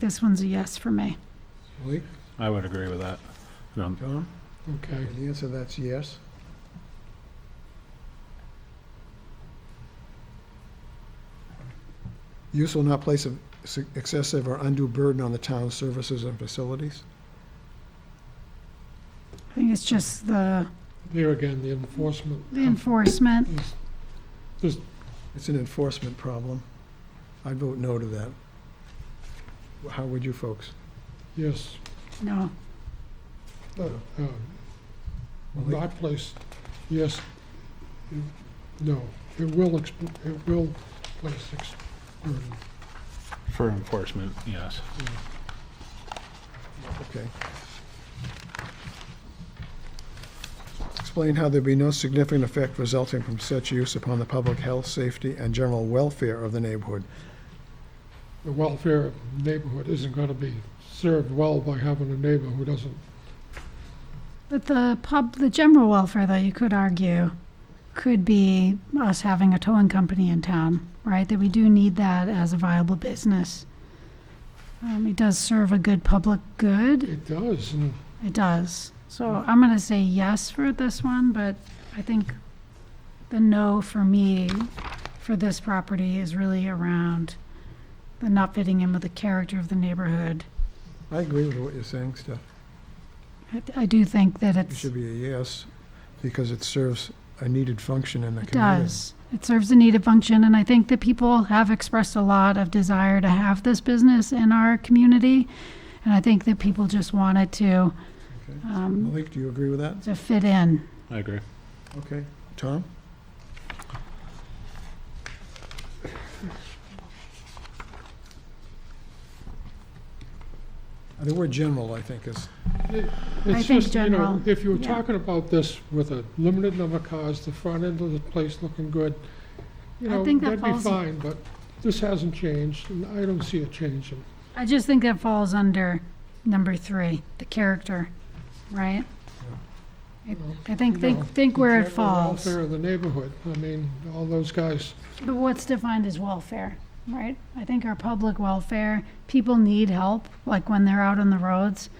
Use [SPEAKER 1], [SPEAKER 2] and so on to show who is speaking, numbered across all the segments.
[SPEAKER 1] This one's a yes for me.
[SPEAKER 2] Malik,
[SPEAKER 3] I would agree with that. Um, I don't-
[SPEAKER 2] Tom?
[SPEAKER 4] Okay.
[SPEAKER 2] The answer to that's yes. Use will not place a s- excessive or undue burden on the town's services and facilities.
[SPEAKER 1] I think it's just the
[SPEAKER 4] There again, the enforcement.
[SPEAKER 1] the enforcement.
[SPEAKER 4] is-
[SPEAKER 2] It's an enforcement problem. I'd vote no to that. How would you folks?
[SPEAKER 4] Yes,
[SPEAKER 1] No,
[SPEAKER 4] uh, not place, yes, no, it will, exp- it will place ex- burden.
[SPEAKER 3] For enforcement, yes.
[SPEAKER 2] Okay. Explain how there'd be no significant effect resulting from such use upon the public health, safety, and general welfare of the neighborhood.
[SPEAKER 4] The welfare of the neighborhood isn't gonna be served well by having a neighbor who doesn't,
[SPEAKER 1] but the pub, the general welfare, though, you could argue, could be us having a towing company in town, right? That we do need that as a viable business. Um, it does serve a good public good.
[SPEAKER 4] it does, and
[SPEAKER 1] It does. So I'm gonna say yes for this one, but I think the no for me for this property is really around the not fitting in with the character of the neighborhood.
[SPEAKER 2] I agree with what you're saying, Steph.
[SPEAKER 1] I- I do think that
[SPEAKER 2] It
[SPEAKER 1] it's,
[SPEAKER 2] should be a yes, because it serves a needed function in the
[SPEAKER 1] it
[SPEAKER 2] community.
[SPEAKER 1] does. It serves a needed function, and I think that people have expressed a lot of desire to have this business in our community. And I think that people just wanted to,
[SPEAKER 2] Okay.
[SPEAKER 1] um,
[SPEAKER 2] Malik, do you agree with that?
[SPEAKER 1] to fit in.
[SPEAKER 3] I agree.
[SPEAKER 2] Okay. Tom? The word general, I think, is,
[SPEAKER 1] I
[SPEAKER 4] it's
[SPEAKER 1] think
[SPEAKER 4] just, you know,
[SPEAKER 1] general,
[SPEAKER 4] if you were
[SPEAKER 1] yeah.
[SPEAKER 4] talking about this with a limited number of cars, the front end of the place looking good, you
[SPEAKER 1] I
[SPEAKER 4] know,
[SPEAKER 1] think that
[SPEAKER 4] that'd be
[SPEAKER 1] falls-
[SPEAKER 4] fine, but this hasn't changed, and I don't see it changing.
[SPEAKER 1] I just think that falls under number three, the character, right? I- I think,
[SPEAKER 4] No.
[SPEAKER 1] think, think where it
[SPEAKER 4] General
[SPEAKER 1] falls.
[SPEAKER 4] Welfare of the neighborhood, I mean, all those guys,
[SPEAKER 1] But what's defined as welfare, right? I think our public welfare, people need help, like when they're out on the roads,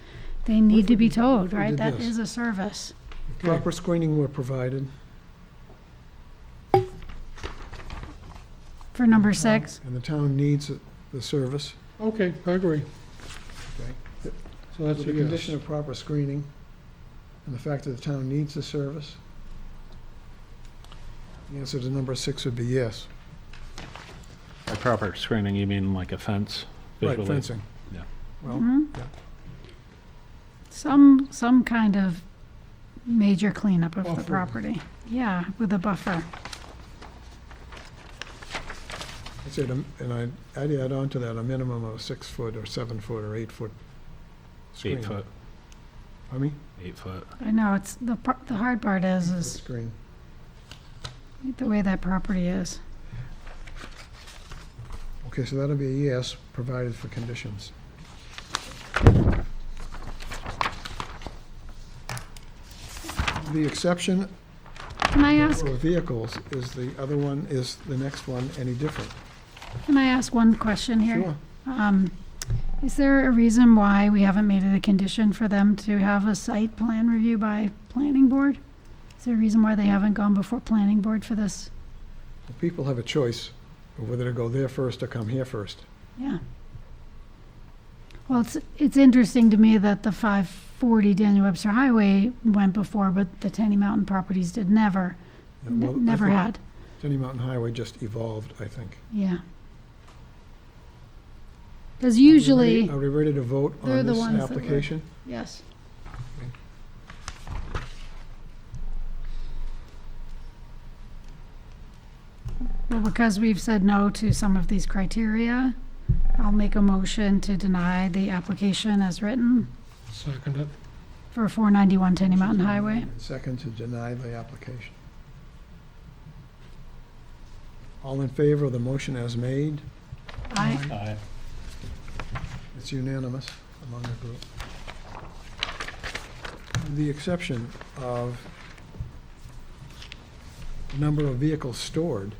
[SPEAKER 1] they need to be towed,
[SPEAKER 2] we
[SPEAKER 1] right?
[SPEAKER 2] did
[SPEAKER 1] That
[SPEAKER 2] this?
[SPEAKER 1] is a service.
[SPEAKER 4] okay,
[SPEAKER 2] proper screening were provided.
[SPEAKER 1] For number six,
[SPEAKER 2] And the town needs the service.
[SPEAKER 4] okay, I agree.
[SPEAKER 2] Okay.
[SPEAKER 4] So that's
[SPEAKER 2] The
[SPEAKER 4] a yes.
[SPEAKER 2] condition of proper screening and the fact that the town needs the service. The answer to number six would be yes.
[SPEAKER 3] By proper screening, you mean like a fence?
[SPEAKER 2] Right,
[SPEAKER 3] visually?
[SPEAKER 2] fencing.
[SPEAKER 3] Yeah.
[SPEAKER 2] Well,
[SPEAKER 1] mhm.
[SPEAKER 2] Oh, yeah.
[SPEAKER 1] some, some kind of major cleanup of the
[SPEAKER 4] Buffer.
[SPEAKER 1] property. Yeah, with a buffer.
[SPEAKER 2] I'd say, the- Um, and I'd, I'd add on to that a minimum of six foot or seven foot or eight foot. screen.
[SPEAKER 3] Eight foot,
[SPEAKER 2] I mean,
[SPEAKER 3] eight foot.
[SPEAKER 1] I know, it's, the, par- the hard part is, is
[SPEAKER 2] screen.
[SPEAKER 1] the way that property is.
[SPEAKER 2] Okay, so that'll be a yes, provided for conditions. The exception
[SPEAKER 1] Can I ask,
[SPEAKER 2] for vehicles is the other one, is the next one any different?
[SPEAKER 1] can I ask one question here?
[SPEAKER 2] Sure.
[SPEAKER 1] Um, is there a reason why we haven't made it a condition for them to have a site plan review by planning board? Is there a reason why they haven't gone before planning board for this?
[SPEAKER 2] The People have a choice of whether to go there first or come here first.
[SPEAKER 1] Yeah. Well, it's, it's interesting to me that the five forty Daniel Webster Highway went before, but the Tenny Mountain properties did never,
[SPEAKER 2] And well, I
[SPEAKER 1] n- never
[SPEAKER 2] think
[SPEAKER 1] had,
[SPEAKER 2] Tenny Mountain Highway just evolved, I think.
[SPEAKER 1] yeah. Cause usually,
[SPEAKER 2] Are we ready to vote
[SPEAKER 1] they're
[SPEAKER 2] on
[SPEAKER 1] the
[SPEAKER 2] this
[SPEAKER 1] ones that were-
[SPEAKER 2] application?
[SPEAKER 1] yes, well, because we've said no to some of these criteria, I'll make a motion to deny the application as written
[SPEAKER 4] Second it.
[SPEAKER 1] for four ninety-one Tenny Mountain Highway.
[SPEAKER 2] Second to deny the application. All in favor of the motion as made?
[SPEAKER 1] I,
[SPEAKER 3] Aye.
[SPEAKER 2] It's unanimous among the group. With The exception of number of vehicles stored,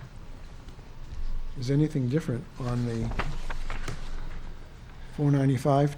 [SPEAKER 2] is anything different on the 495